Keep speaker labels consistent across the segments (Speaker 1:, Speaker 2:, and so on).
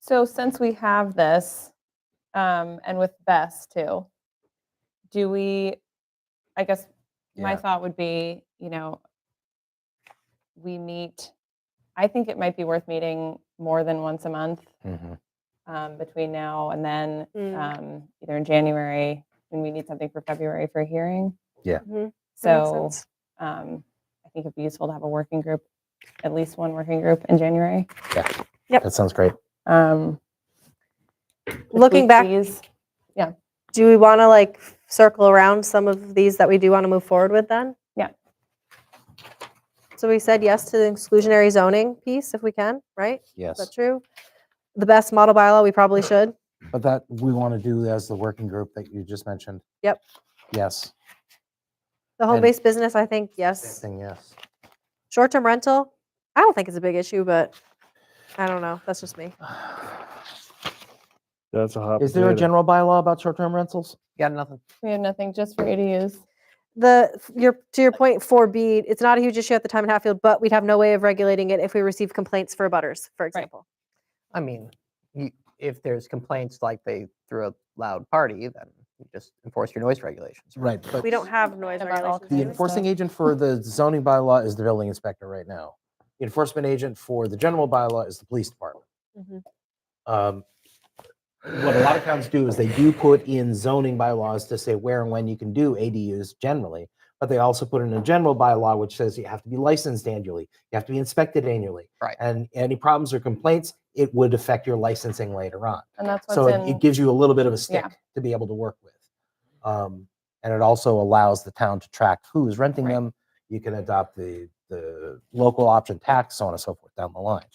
Speaker 1: So since we have this, um, and with Bess too, do we, I guess my
Speaker 2: Yeah.
Speaker 1: thought would be, you know, we meet, I think it might be worth meeting more than once a month
Speaker 2: Mhm.
Speaker 1: um, between now and then,
Speaker 3: Mm.
Speaker 1: um, either in January, when we need something for February for a hearing.
Speaker 2: Yeah.
Speaker 3: Mhm. That makes
Speaker 1: So
Speaker 3: sense.
Speaker 1: um, I think it'd be useful to have a working group, at least one working group in January.
Speaker 3: Yep.
Speaker 2: That sounds great.
Speaker 1: Um, with
Speaker 3: Looking
Speaker 1: week
Speaker 3: back-
Speaker 1: fees.
Speaker 3: do we want to like circle around some of these that we do want to move forward with then?
Speaker 1: Yeah.
Speaker 3: So we said yes to the exclusionary zoning piece if we can, right? Is that
Speaker 2: Yes.
Speaker 3: true? The best model bylaw, we probably should.
Speaker 2: But that we want to do as the working group that you just mentioned.
Speaker 3: Yep.
Speaker 2: Yes.
Speaker 3: The
Speaker 2: And-
Speaker 3: home-based business, I think,
Speaker 2: Same
Speaker 3: yes.
Speaker 2: thing, yes.
Speaker 3: Short-term rental, I don't think it's a big issue, but I don't know. That's just me.
Speaker 4: That's a hot.
Speaker 2: Is there a
Speaker 4: potato.
Speaker 2: general bylaw about short-term rentals? Got nothing.
Speaker 1: We have nothing just for ADUs.
Speaker 3: The, your, to your point, four B, it's not a huge issue at the time in Hatfield, but we'd have no way of regulating it if we receive complaints for abutters, for example.
Speaker 5: I mean, you, if there's complaints like they threw a loud party, then you just enforce your noise regulations.
Speaker 2: Right, but
Speaker 3: We don't have noise
Speaker 1: About all
Speaker 2: the
Speaker 3: regulations.
Speaker 1: kinds of
Speaker 3: anyway.
Speaker 2: enforcing agent for the zoning bylaw is the building inspector right now. The Enforcement agent for the general bylaw is the police department.
Speaker 3: Mhm.
Speaker 2: Um, What a lot of towns do is they do put in zoning bylaws to say where and when you can do ADUs generally, but they also put in a general bylaw which says you have to be licensed annually, you have to be inspected annually.
Speaker 5: Right.
Speaker 2: And any problems or complaints, it would affect your licensing later on.
Speaker 1: And that's what's
Speaker 2: So it-
Speaker 1: in.
Speaker 2: it gives you a little bit of a
Speaker 1: Yeah.
Speaker 2: stick to be able to work with. Um, and it also allows the town to track who is renting
Speaker 1: Right.
Speaker 2: them. You can adopt the, the local option tax, so on and so forth down the line.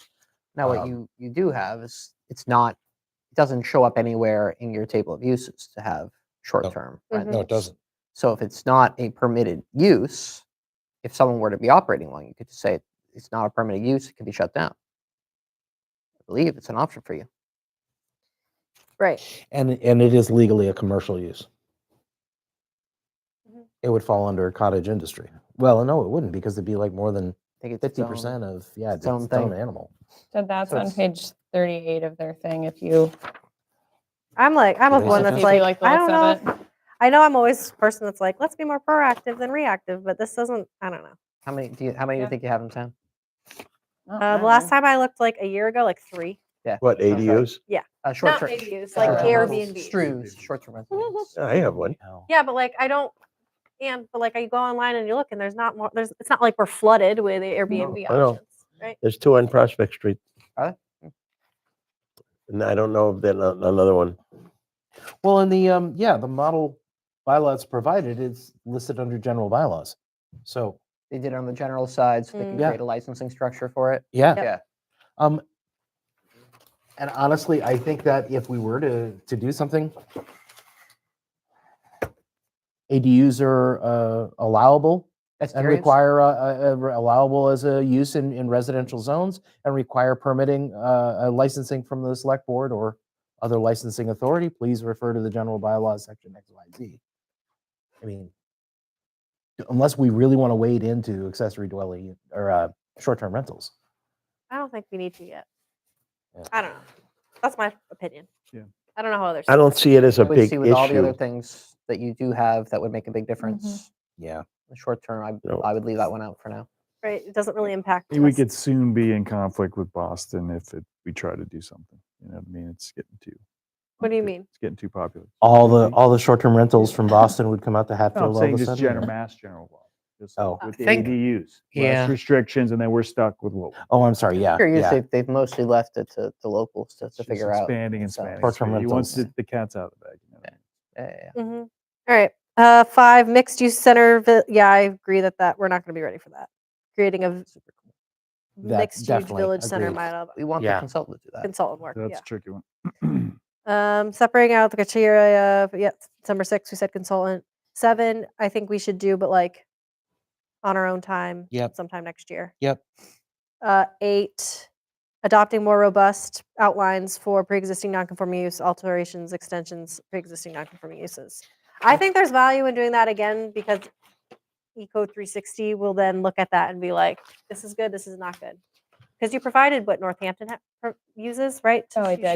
Speaker 5: Now, what
Speaker 2: Um,
Speaker 5: you, you do have is, it's not, it doesn't show up anywhere in your table of uses to have short-term
Speaker 3: No, it
Speaker 5: rentals.
Speaker 2: doesn't.
Speaker 5: So if it's not a permitted use, if someone were to be operating one, you could just say, it's not a permitted use, it can be shut down. I believe it's an option for you.
Speaker 3: Right.
Speaker 2: And, and it is legally a commercial use.
Speaker 5: Mm-hmm.
Speaker 3: Mhm.
Speaker 2: It would fall under cottage industry. Well, no, it wouldn't because it'd be like more than
Speaker 5: I think it's um, its
Speaker 2: fifty
Speaker 5: own-
Speaker 2: percent of, yeah,
Speaker 5: its
Speaker 2: it's
Speaker 5: own
Speaker 2: its own
Speaker 5: thing.
Speaker 2: animal.
Speaker 1: So that's
Speaker 5: So
Speaker 1: on
Speaker 5: it's-
Speaker 1: page 38 of their thing, if you,
Speaker 3: I'm like, I'm
Speaker 2: Yeah,
Speaker 3: of
Speaker 2: they
Speaker 3: one
Speaker 2: said
Speaker 3: that's
Speaker 2: that.
Speaker 1: Maybe like
Speaker 3: like,
Speaker 1: the
Speaker 3: I don't
Speaker 1: looks
Speaker 3: know. if- I know I'm always a person that's like, let's be more proactive than reactive, but this doesn't. I don't know.
Speaker 5: How many, do you, how many do
Speaker 1: Yeah.
Speaker 5: you think you have in town?
Speaker 1: not
Speaker 3: Uh, the last time I looked, like a year ago, like three.
Speaker 6: What,
Speaker 5: Sounds right.
Speaker 6: ADUs?
Speaker 5: Uh, short-term.
Speaker 3: like
Speaker 5: short-term rentals,
Speaker 3: Airbnb.
Speaker 5: Strews, short-term rentals.
Speaker 6: I have one.
Speaker 2: No.
Speaker 3: Yeah, but like I don't. And but like I go online and you look, and there's not more. There's it's not like we're flooded with the Airbnb
Speaker 6: I know.
Speaker 3: options, right?
Speaker 6: There's two on Prospect Street.
Speaker 5: Are
Speaker 6: And I don't know if there's a- another one.
Speaker 2: Well, in the, um, yeah, the model bylaws provided is listed under general bylaws. So,
Speaker 5: They did it on the general side, so they
Speaker 3: Mm.
Speaker 5: can
Speaker 2: Yeah.
Speaker 5: create a licensing structure for it.
Speaker 2: yeah.
Speaker 3: Yep.
Speaker 5: Yeah.
Speaker 2: Um, and honestly, I think that if we were to, to do something, ADUs are uh, allowable
Speaker 5: That's
Speaker 2: and
Speaker 5: curious.
Speaker 2: require, uh, uh, uh, allowable as a use in, in residential zones and require permitting, uh, uh, licensing from the select board or other licensing authority, please refer to the general bylaws section X, Y, Z. I mean, unless we really want to wade into accessory dwelling or, uh, short-term rentals.
Speaker 3: I don't think we need to yet.
Speaker 2: Yeah.
Speaker 3: I don't know. That's my opinion.
Speaker 4: Yeah.
Speaker 3: I don't know how others.
Speaker 6: I don't see it as a
Speaker 5: I would
Speaker 6: big
Speaker 5: see with all the other
Speaker 6: issue.
Speaker 5: things that you do have that would make a
Speaker 3: Mm-hmm.
Speaker 5: big difference.
Speaker 2: Yeah.
Speaker 5: The short term, I,
Speaker 6: No.
Speaker 5: I would leave that one out for now.
Speaker 3: Right? It doesn't really impact.
Speaker 4: We
Speaker 3: us.
Speaker 4: could soon be in conflict with Boston if it, we try to do something. You know what I mean? It's getting too.
Speaker 3: What do you
Speaker 4: it-
Speaker 3: mean?
Speaker 4: It's getting too popular.
Speaker 2: All the, all the short-term rentals from Boston would come out to
Speaker 4: No, I'm
Speaker 2: Hatfield all
Speaker 4: saying
Speaker 2: of a
Speaker 4: Oh, just
Speaker 2: sudden?
Speaker 4: general,
Speaker 2: or-
Speaker 4: mass general law. just
Speaker 2: Oh.
Speaker 4: With
Speaker 5: I
Speaker 4: the
Speaker 5: think-
Speaker 4: ADUs,
Speaker 5: yeah.
Speaker 4: less restrictions, and then we're stuck with what.
Speaker 2: Oh, I'm sorry, yeah,
Speaker 5: Curious,
Speaker 2: yeah.
Speaker 5: they've, they've mostly left it to the locals to, to
Speaker 4: just
Speaker 5: figure out.
Speaker 4: Expanding and
Speaker 5: so-
Speaker 4: expanding.
Speaker 2: Short-term
Speaker 4: expanding. He wants
Speaker 2: rentals.
Speaker 4: the the cats out of the bag. you know what I
Speaker 3: Eh,
Speaker 5: Yeah,
Speaker 4: mean?
Speaker 5: yeah, yeah.
Speaker 3: Mhm. All right. Uh, five mixed use center. vi- Yeah, I agree that that we're not going to be ready for that. Creating a v-
Speaker 5: Super cool.
Speaker 2: That-
Speaker 3: mixed use
Speaker 2: definitely,
Speaker 3: village center
Speaker 2: agreed.
Speaker 3: model
Speaker 5: We want
Speaker 2: Yeah.
Speaker 5: the consultant to do that.
Speaker 3: consultant work.
Speaker 4: That's
Speaker 3: yeah.
Speaker 4: a tricky one.
Speaker 3: Um, separating out the criteria. of- Yeah, December six. We said consultant. Seven. I think we should do, but like on our own time.
Speaker 2: Yep.
Speaker 3: Sometime next year.
Speaker 2: Yep.
Speaker 3: Uh, eight. Adopting more robust outlines for pre-existing non-conforming use alterations, extensions, pre-existing non-conforming uses. I think there's value in doing that again because Eco 360 will then look at that and be like, this is good, this is not good. Because you provided what Northampton ha- pro- uses, right?
Speaker 1: Oh, I
Speaker 3: You
Speaker 1: did.
Speaker 3: shared